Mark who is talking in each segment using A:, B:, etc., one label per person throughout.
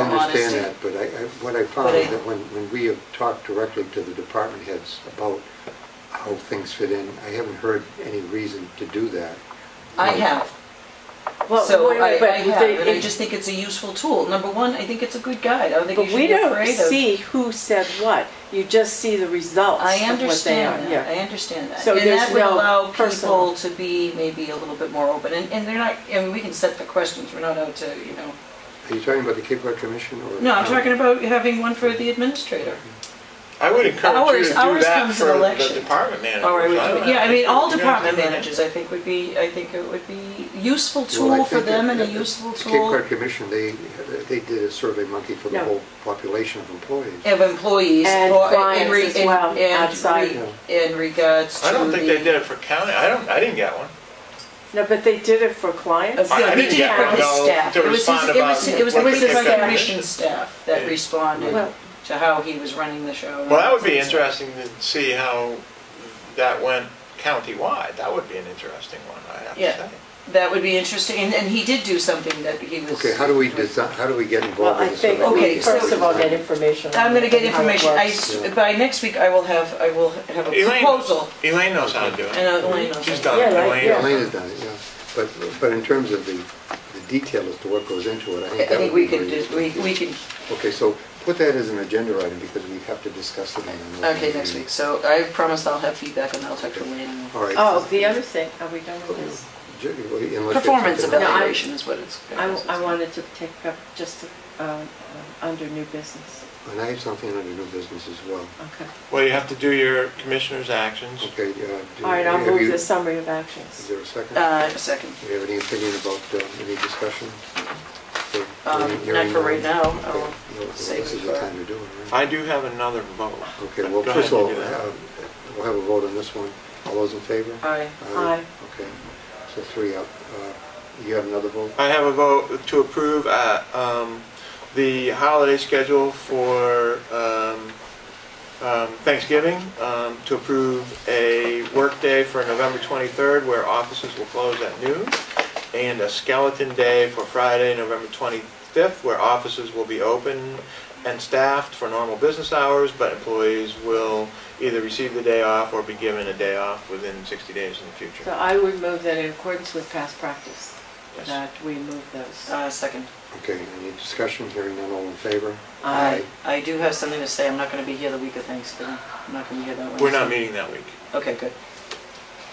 A: understand
B: honesty.
A: that, but I, I- what I found
B: But I-
A: is that when, when we have talked directly to the department heads about how things fit in, I haven't heard any reason to do that.
B: I have.
C: Well,
B: So
C: wait,
B: I,
C: wait, but
B: I have,
C: they-
B: and I
C: it-
B: just think it's a useful tool. Number one, I think it's a good guide. I don't think you
C: But
B: should
C: we
B: be
C: don't
B: afraid of.
C: see who said what, you just see the results
B: I
C: of what they are,
B: understand that, I
C: yeah.
B: understand that.
C: So
B: And
C: there's
B: that would
C: no
B: allow
C: personal-
B: people to be maybe a little bit more open, and, and they're not, and we can set the questions, we're not out to, you know.
A: Are you talking about the Cape Cod Commission or?
B: No, I'm talking about having one for the administrator.
D: I would encourage you
B: Ours-
D: to do
B: ours
D: that
B: comes
D: for
B: in
D: the
B: election.
D: department managers.
B: Or I would,
D: I don't
B: yeah, I
D: know.
B: mean, all
D: You don't
B: department
D: do that.
B: managers, I think would be, I think it would be useful
A: Well, I
B: tool for
A: think
B: them
A: that-
B: and a
A: that
B: useful
A: the Cape
B: tool
A: Cod Commission, they, they did a survey monkey for the
C: Yeah.
A: whole population of employees.
B: of employees.
C: And
B: for- in
C: clients
B: re-
C: as
B: in-
C: well,
B: and re-
C: outside.
B: In regards to
D: I don't think
B: the-
D: they did it for county, I don't, I didn't get one.
C: No, but they did it for clients.
D: I- I
B: Yeah, he
D: didn't
B: did
D: get
B: it for his
D: Ronaldo
B: staff.
D: to
B: It was his- it
D: respond
B: was-
D: about
B: It was the
C: what
B: Cape
C: they
B: Cod
C: said.
B: Commission staff that
D: Yeah.
B: responded
C: Well-
B: to how he was running the show.
D: Well, that would be interesting to see how that went countywide, that would be an interesting one, I have to
B: Yeah.
D: say.
B: That would be interesting, and, and he did do something that he was.
A: Okay, how do we design, how do we get
C: Well,
A: involved
C: I
A: in the
C: think
A: survey?
B: Okay,
C: we first
B: so-
C: of all get information.
B: I'm gonna get
C: on how it
B: information, I,
C: works.
B: s- by next week, I will have, I will have a
D: Elaine-
B: proposal,
D: Elaine knows how to do it.
B: and uh, Elaine will.
D: She's done,
C: Yeah,
D: it.
C: right,
D: Elaine.
C: yeah.
A: Elena's done it, yeah. But, but in terms of the, the detail as to what goes into it, I
B: I
A: think that would
B: think we
A: be
B: could,
A: very
B: do-
A: useful.
B: we, we could,
A: Okay, so put that as an agenda item because we have to discuss it in another
B: okay, next
A: meeting.
B: week, so I promise I'll have feedback and I'll talk to Elaine. and we'll-
A: All right.
C: Oh, the other thing, are we done with this?
A: Ju- well, unless you have
B: Performance
A: something else.
C: No, I-
B: evaluation is what it's.
C: I, I wanted to take up just, um, under new business,
A: And I have something under new business as well.
C: okay.
D: Well, you have to do your commissioner's actions.
A: Okay. uh, do-
C: All right, I'll
A: have
C: move
A: you-
C: the summary of
A: Is
C: actions.
A: there a second?
B: Uh, second.
A: Do you have any opinion about, uh, any discussion? Okay,
B: Um,
A: hearing-
B: not
A: hearing
B: for right
A: none.
B: now.
A: Okay,
B: I'll
A: no, well,
B: save
A: This
B: it
A: is the
B: for-
A: time to do it, right?
D: I do have another vote.
A: Okay, well,
D: Go
A: first of
D: ahead,
A: all,
D: you do that.
A: uh, we'll have a vote on this one. All those in favor?
B: Aye.
C: Aye.
A: Okay, so three up. Uh, You have another vote?
D: I have a vote to approve uh, um, the holiday schedule for um, um, Thanksgiving, um, to approve a workday for November 23rd where offices will close at noon, and a skeleton day for Friday, November 25th, where offices will be open and staffed for normal business hours, but employees will either receive the day off or be given a day off within 60 days in the
C: So
D: future.
C: I would move that in accordance with past practice,
D: Yes.
C: that we move those.
B: Uh, second.
A: Okay, any discussion? Hearing none, all in favor?
C: Aye.
B: I do have something to say. I'm not going to be here the week of Thanksgiving. I'm not going to be here that Wednesday.
D: We're not meeting that week.
B: Okay, good.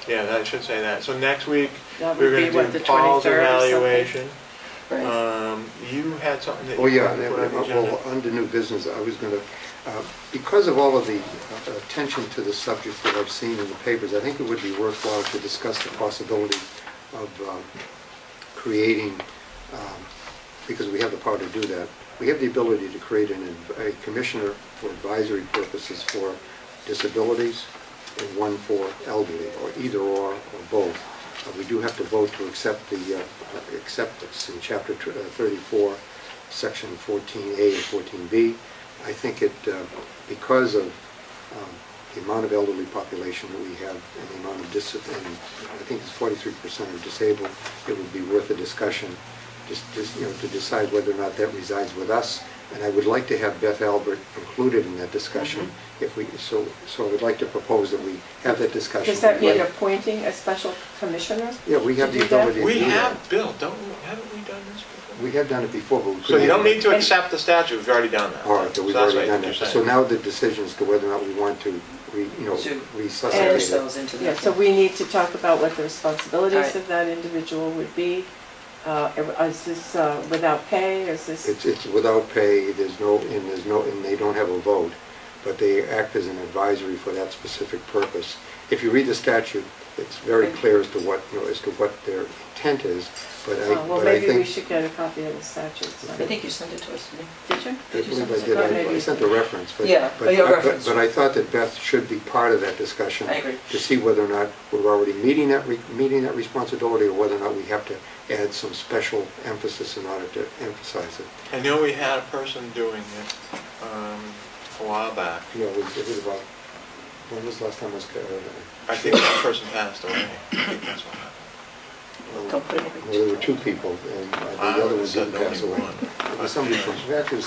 D: Yeah, that I should say that. So next week,
C: That would
D: we're
C: be,
D: gonna
C: what,
D: do
C: the
D: Paul's
C: 23rd or something?
D: evaluation.
B: Right.
D: Um, you had something that you
A: Oh, yeah,
D: wanted
A: and
D: to
A: then,
D: put on the
A: uh, well,
D: agenda?
A: under new business, I was going to, because of all of the uh, attention to the subject that I've seen in the papers, I think it would be worthwhile to discuss the possibility of um, creating, um, because we have the power to do that, we have the ability to create an, adv- a commissioner for advisory purposes for disabilities and one for elderly, or either or, or both. Uh, We do have to vote to accept the, uh, uh, accept this in chapter tw- uh, 34, section 14A and 14B. I think it, uh, because of um, the amount of elderly population that we have and the amount of dis, and I think it's 43% are disabled, it would be worth a discussion just, just, you know, to decide whether or not that resides with us. And I would like to have Beth Albert included in that discussion if we, so, so I would like to propose that we have that discussion.
C: Does that mean
A: Right.
C: appointing a special commissioner?
A: Yeah, we have
C: to
A: the
C: do that?
A: ability to
D: We
A: do that.
D: have, Bill, don't, we- haven't we done this before?
A: We have done it before, but we couldn't.
D: So you don't need to
C: And-
D: accept the statute, we've already done that.
A: All right, so
D: So
A: we've
D: that's
A: already
D: what
A: done
D: you're
A: that.
D: saying.
A: So now the decision is to whether or not we want to, re- you know,
B: To
A: resuscitate
C: And-
A: it.
B: ourselves into
C: Yeah,
B: that.
C: so we need to talk about what the
B: Right.
C: responsibilities of that individual would be. Uh, Is this uh, without pay, is this,
A: It's, it's without pay, there's no, and there's no, and they don't have a vote, but they act as an advisory for that specific purpose. If you read the statute, it's very clear as to what, you know, as to what their intent is, but I,
C: oh, well,
A: but I
C: maybe we
A: think.
C: should get a copy of the statute. so-
B: I think you sent it to us, didn't you?
C: Did you?
A: I believe I did,
B: Oh,
A: I- I
B: maybe.
A: sent a reference, but.
B: Yeah,
A: but
B: your
A: I- but-
B: reference.
A: But I thought that Beth should be part of that discussion.
B: I agree.
A: To see whether or not we're already meeting that, re- meeting that responsibility, or whether or not we have to add some special emphasis in order to emphasize it.
D: I know we had a person doing it um, a while back.
A: You know, it was- it was about, when was the last time I was, uh,
D: I think that person passed away. I think that's what happened.
B: Don't put it in.
A: Well, there were two people, and uh, the
D: I
A: other one
D: said
A: didn't pass
D: only
A: away.
D: one.
A: It was somebody from, actually, it was